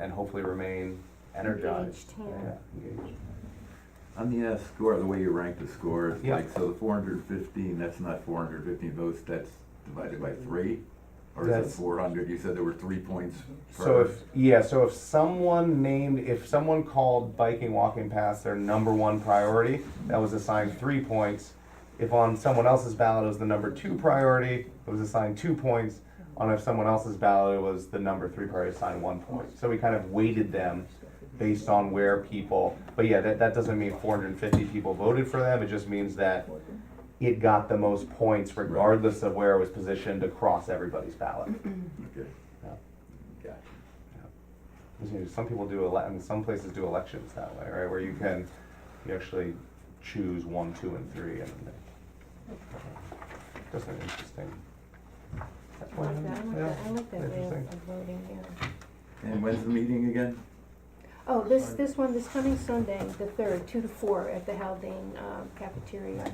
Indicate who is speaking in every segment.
Speaker 1: and hopefully remain energized.
Speaker 2: Engaged, yeah.
Speaker 1: Yeah, engaged.
Speaker 3: On the uh, score, the way you rank the scores,
Speaker 1: Yeah.
Speaker 3: like, so the four hundred fifteen, that's not four hundred fifteen votes, that's divided by three? Or is it
Speaker 1: That's-
Speaker 3: four hundred, you said there were three points per?
Speaker 1: So if, yeah, so if someone named, if someone called biking, walking past their number one priority, that was assigned three points. If on someone else's ballot it was the number two priority, it was assigned two points. On if someone else's ballot it was the number three priority, assigned one point. So we kind of weighted them based on where people, but yeah, that, that doesn't mean four hundred and fifty people voted for them, it just means that it got the most points regardless of where it was positioned across everybody's ballot.
Speaker 3: Okay.
Speaker 1: Yeah.
Speaker 3: Gotcha.
Speaker 1: You know, some people do ele- and some places do elections that way, right? Where you
Speaker 2: Mm-hmm.
Speaker 1: can you actually choose one, two, and three, and then they- just an interesting. That's
Speaker 2: I
Speaker 1: why
Speaker 2: like that, I like
Speaker 1: yeah,
Speaker 2: that, I like that way of
Speaker 1: interesting.
Speaker 2: of voting, yeah.
Speaker 3: And when's the meeting again?
Speaker 2: Oh, this, this one, this coming Sunday, the third, two to four at the Haldane um, cafeteria.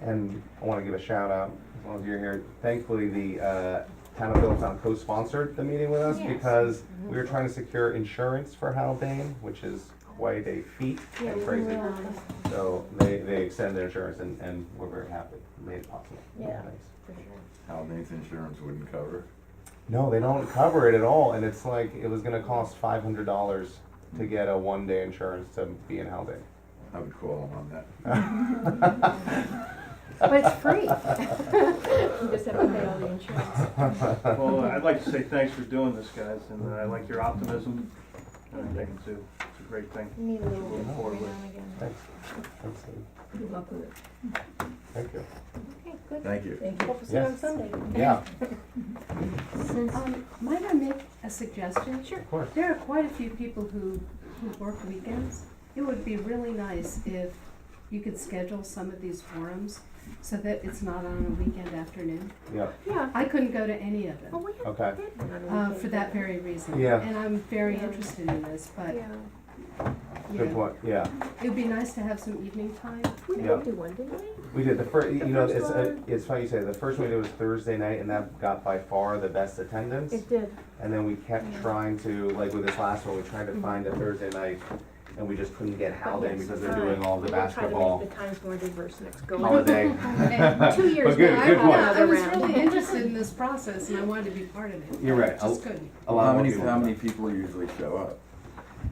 Speaker 1: And I want to give a shout out as long as you're here. Thankfully, the uh, town of Middletown co-sponsored the meeting with us
Speaker 2: Yes. Mm-hmm.
Speaker 1: because we were trying to secure insurance for Haldane, which is quite a feat
Speaker 2: Yeah,
Speaker 1: and
Speaker 2: we
Speaker 1: crazy.
Speaker 2: realized,
Speaker 1: So they, they extended their insurance and, and we're very happy, made it possible.
Speaker 2: Yeah.
Speaker 1: Thanks.
Speaker 2: for sure.
Speaker 3: Haldane's insurance wouldn't cover.
Speaker 1: No, they don't cover it at all, and it's like, it was gonna cost five hundred dollars to get a one-day insurance to be in Haldane.
Speaker 3: I would call him on that.
Speaker 2: But it's free. You just have to pay all the insurance.
Speaker 4: Well, I'd like to say thanks for doing this, guys, and uh, I like your optimism, and I think it's a, it's a great thing.
Speaker 2: Need a little bit
Speaker 4: Moving
Speaker 2: every
Speaker 4: forward.
Speaker 2: now and again.
Speaker 1: Thanks. Thanks, Steve.
Speaker 5: Good luck with it.
Speaker 1: Thank you.
Speaker 2: Okay, good.
Speaker 3: Thank you.
Speaker 5: Thank you.
Speaker 2: Hope to see you on
Speaker 1: Yes.
Speaker 2: Sunday.
Speaker 1: Yeah,
Speaker 6: Um, might I make a suggestion?
Speaker 2: Sure.
Speaker 1: of course.
Speaker 6: There are quite a few people who, who work weekends. It would be really nice if you could schedule some of these forums so that it's not on a weekend afternoon.
Speaker 1: Yeah,
Speaker 2: Yeah.
Speaker 6: I couldn't go to any of
Speaker 2: Oh,
Speaker 6: them,
Speaker 2: we have
Speaker 1: okay.
Speaker 2: that one on the
Speaker 6: uh,
Speaker 2: weekend,
Speaker 6: for that
Speaker 2: yeah.
Speaker 6: very reason.
Speaker 1: Yeah.
Speaker 6: And I'm very
Speaker 2: Yeah.
Speaker 6: interested in this, but,
Speaker 2: Yeah,
Speaker 6: you
Speaker 1: Good
Speaker 6: know,
Speaker 1: point, yeah.
Speaker 6: it would be nice to have some evening time.
Speaker 2: we
Speaker 1: Yeah.
Speaker 2: did do one, didn't we?
Speaker 1: We did, the first, you
Speaker 2: The
Speaker 1: know,
Speaker 2: first
Speaker 1: it's, uh,
Speaker 2: one-
Speaker 1: it's funny you say, that. the first one we did was Thursday night, and that got by far the best attendance.
Speaker 2: It did.
Speaker 1: And then we kept trying to, like with this last one, we tried to find a Thursday night, and we just couldn't get Haldane because they're doing all the
Speaker 2: We'll
Speaker 1: basketball
Speaker 2: try to make the times more diverse next go.
Speaker 1: holiday.
Speaker 2: Two years
Speaker 1: But good-
Speaker 2: now,
Speaker 1: good
Speaker 2: I have
Speaker 1: point.
Speaker 6: Yeah, I
Speaker 2: another
Speaker 6: was
Speaker 2: round.
Speaker 6: really interested in this process and I wanted to be part of it.
Speaker 1: You're
Speaker 6: but
Speaker 1: right. I'll-
Speaker 6: Just couldn't.
Speaker 1: A lot
Speaker 3: How
Speaker 1: more
Speaker 3: many,
Speaker 1: people.
Speaker 3: how many people usually show up?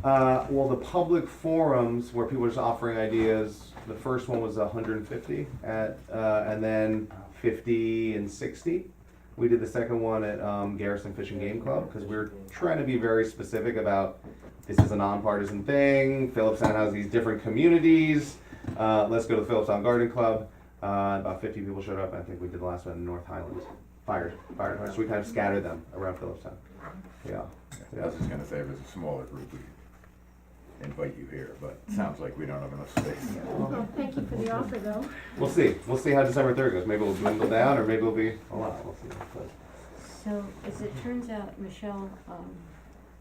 Speaker 1: Uh, well, the public forums where people are just offering ideas, the first one was 150 at, uh, and then 50 and 60. We did the second one at um, Garrison Fishing Game Club because we were trying to be very specific about this is a nonpartisan thing. Phillipstown has these different communities. Uh, let's go to the Phillipstown Garden Club. Uh, about 50 people showed up. I think we did the last one in North Highland. Fire, fire. So we kind of scattered them around Phillipstown. Yeah.
Speaker 3: I was just gonna say, if it's a smaller group, we invite you here, but it sounds like we don't have enough space.
Speaker 2: Well, thank you for the offer, though.
Speaker 1: We'll see. We'll see how December third goes. Maybe we'll dwindle down, or maybe we'll be a lot. We'll see. But
Speaker 7: So, as it turns out, Michelle, um,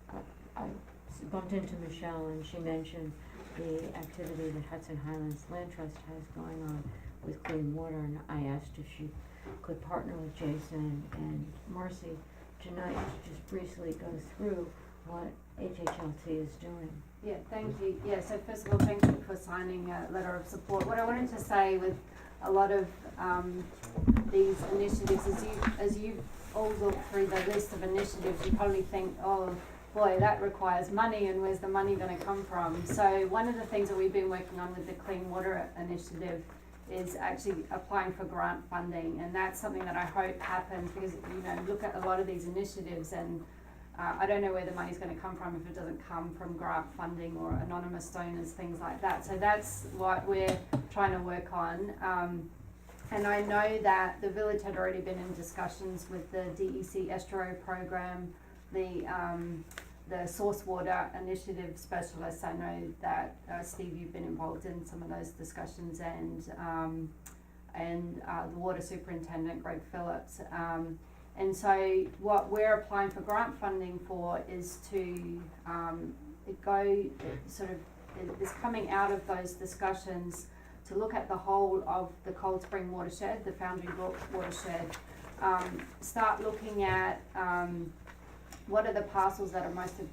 Speaker 7: I- I s- bumped into Michelle and she mentioned the activity that Hudson Highlands Land Trust has going on with clean water, and I asked if she could partner with Jason and Marcy tonight to just briefly go through what HHLT is doing.
Speaker 8: Yeah, thank you. Yeah, so first of all, thank you for signing a letter of support. What I wanted to say with a lot of um, these initiatives is you, as you all look through the list of initiatives, you probably think, oh, boy, that requires money and where's the money gonna come from? So one of the things that we've been working on with the Clean Water Initiative is actually applying for grant funding and that's something that I hope happens because, you know, look at a lot of these initiatives and uh, I don't know where the money's going to come from if it doesn't come from grant funding or anonymous donors, things like that. So that's what we're trying to work on. Um, and I know that the village had already been in discussions with the DEC Estro program, the um, the source water initiative specialists. I know that uh, Steve, you've been involved in some of those discussions, and um, and uh, the water superintendent Greg Phillips. Um, and so what we're applying for grant funding for is to um, it go it sort of it is coming out of those discussions to look at the whole of the Cold Spring watershed, the Foundry Brook watershed, um, start looking at um, what are the parcels that are most of